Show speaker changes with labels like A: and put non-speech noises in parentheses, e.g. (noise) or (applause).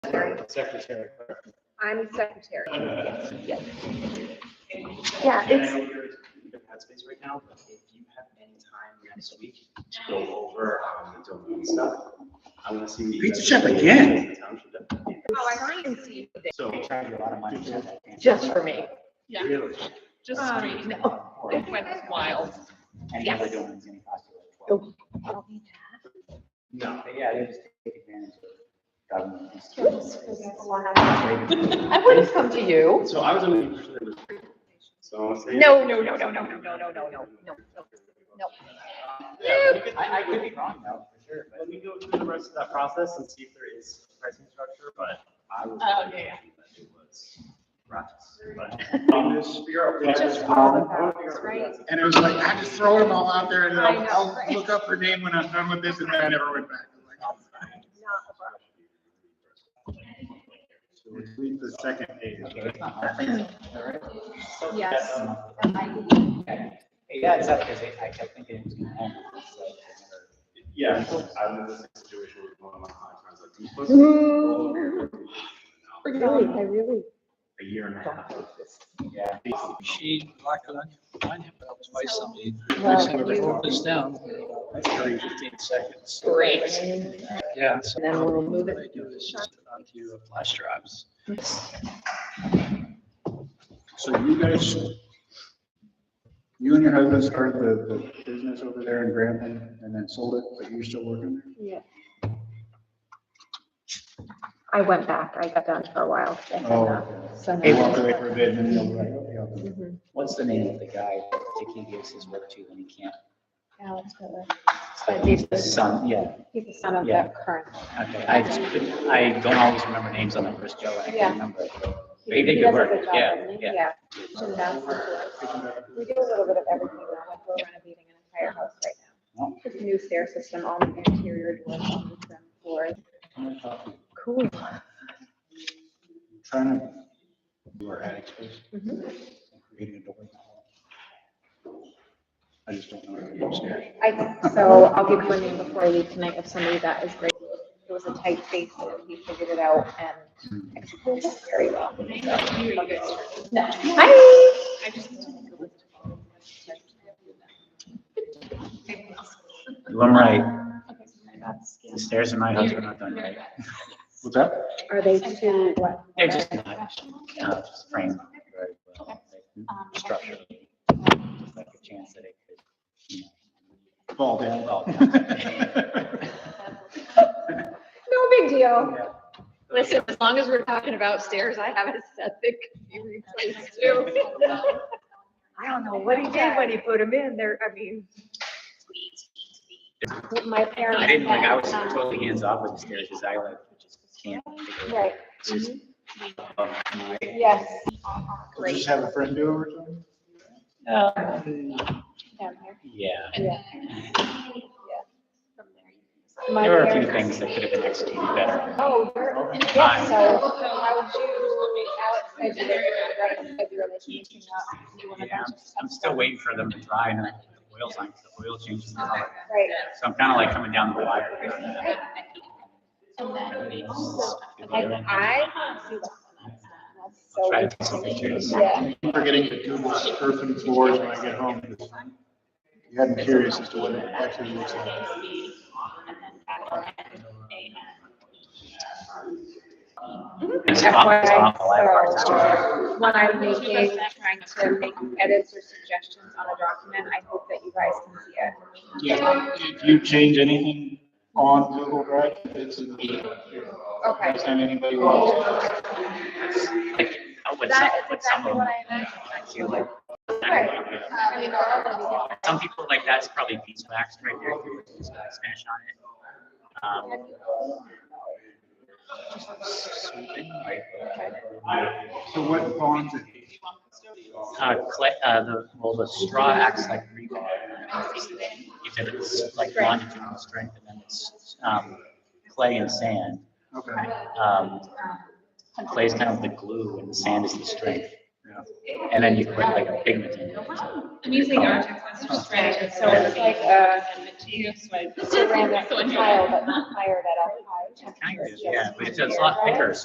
A: Secretary.
B: Secretary.
A: I'm secretary.
C: Yeah,
D: And I
C: it's-
D: know you're in headspace right now, but if you have any time next week to go over, um, the domain stuff, I wanna see. what you
E: Pizza
D: guys
E: Chef
D: do.
E: again?
A: Oh, I already can see.
D: So,
B: They charge you a lot of money. for that.
C: Just for me.
F: Yeah,
E: Really?
F: just
A: Um,
F: straight.
B: And
F: It went wild.
B: the other domain's gonna cost you like
C: Oh.
B: twelve.
D: no,
B: But yeah, they just take advantage of government.
C: I wouldn't come to you.
D: so I was under the impression that it was. So I'll say.
C: No, no, no, no, no, no, no, no, no, no, no.
D: Yeah, we could-
B: I, I could be wrong though, for sure, but
D: Let me go through the rest of that process and see if there is pricing structure, but I was.
F: Oh, yeah,
D: That it was rough, but. um, just
C: (laughs)
D: figure out what-
A: Just all of ours, right?
E: And it was like, I just throw them all out there and
A: I
E: I'll,
A: know,
E: I'll
A: right?
E: look up her name when I'm done with this and then I never went back. I'm like, oh. So we leave the second page.
B: it's not hard.
A: Yes.
B: Okay. Yeah, it's up because I kept thinking it was gonna end. so I
D: Yeah, I was in this situation with one of my clients, I was like, you supposed to. roll
C: Mm,
D: over your work week now."
C: Really, I really
D: A year and a
C: don't
D: half.
C: like this.
B: never- Yeah.
G: She locked it on your, on your belt by somebody.
C: Well, you-
G: Put this down. During fifteen seconds.
F: Great.
G: Yeah.
C: And then we'll move it.
G: What I do is just put onto your flash drives.
E: So you guys, you and your husband started the, the business over there in Grafton and then sold it, but you're still working there?
C: Yeah. I went back. I got done for a while. I had not.
B: Oh.
C: So
E: Oh. They walked away
C: now-
E: for a bit and then they're like, "Oh, yeah."
C: Mhm.
B: What's the name of the guy that Dicky gives his work to when he can't?
A: Alex Miller.
B: So
A: He's the-
B: Son, yeah,
A: He's the son of
B: Yeah.
A: the current.
B: okay, I just, couldn't- I don't always remember names on the first Joe, I
A: Yeah.
B: can't remember. But he did
A: He
B: good
A: does a
B: work,
A: good job,
B: yeah,
A: doesn't he?
B: yeah.
A: Yeah. And that's the- We do a little bit of everything now, like we're renovating an entire house right now. Just new stair system, all new interior doors, all new trim floors.
C: Cool.
E: Trying to, do our attic space,
C: Mhm.
E: creating a door. I just don't know where to go
C: (laughs)
E: upstairs.
C: I, so I'll give you a name before I leave tonight of somebody that is great.
A: It was a tight space, but he figured it out and executed it very well. No.
C: Hi.
F: I just.
B: You I'm right,
F: Okay, so that's-
B: the stairs in my house are not done yet.
E: What's that?
C: Are they too, what?
B: They're just not, uh, just framed very well. Structure. Just like a chance that it could, you
E: Fall
B: know,
E: down.
B: fall
C: No big deal.
B: down.
C: Listen, as long as we're talking about stairs, I have a set that could be replaced too. I don't know what he did when he put them in there. I mean. My parents.
B: (laughs) I didn't, like, I was
C: had, um,
B: totally hands off with the stairs, because I like, can't.
C: Right.
B: Just above my
C: Yes.
E: Just have a friend do it or something?
A: Down here.
B: Yeah,
C: Yeah. My
B: there were a few
C: parents-
B: things that could have been executed better.
C: Oh, you're- yeah, so how would you, Alex, I did it, I did relationship.
B: Yeah, I'm- I'm still waiting for them to dry and then the oil's on, the oil changes color.
C: Right.
B: So I'm kind of like coming down the wire. here on that.
C: And I do that. That's
B: I'll
C: so
B: Try to take some
C: interesting.
B: pictures.
C: Yeah.
E: I'm forgetting to do my earthen floors when I get home. You had me curious as to what it actually looks like.
B: It's awful, it's awful. I have a hard time.
A: So when I'm making, trying to make edits or suggestions on a document, I hope that you guys can see it.
E: Yeah, if you change anything on Google Drive, it's in the,
A: Okay.
E: next time anybody wants.
B: Like, uh, with some,
A: That is
B: with some
A: exactly
B: of
A: what
B: them.
A: I imagined.
B: I feel like-
A: Right. I mean, they're all gonna be
B: Some people like that's probably beeswax right there, if you were to use wax finish on it. Um,
E: So what bonds it?
B: Uh, clay, uh, the, well, the straw acts like rebar. If it's like longitudinal strength and then it's, um, clay and sand.
E: Okay.
B: Um, clay's kind of the glue and the sand is the strength. And then you put like a pigment in it.
F: I'm using our Texas strategy, so it's like, uh,
C: (laughs)
F: so I. (laughs)
A: It's a random tile, but not fired at all.
B: Kind of, yeah, but it's a lot thicker,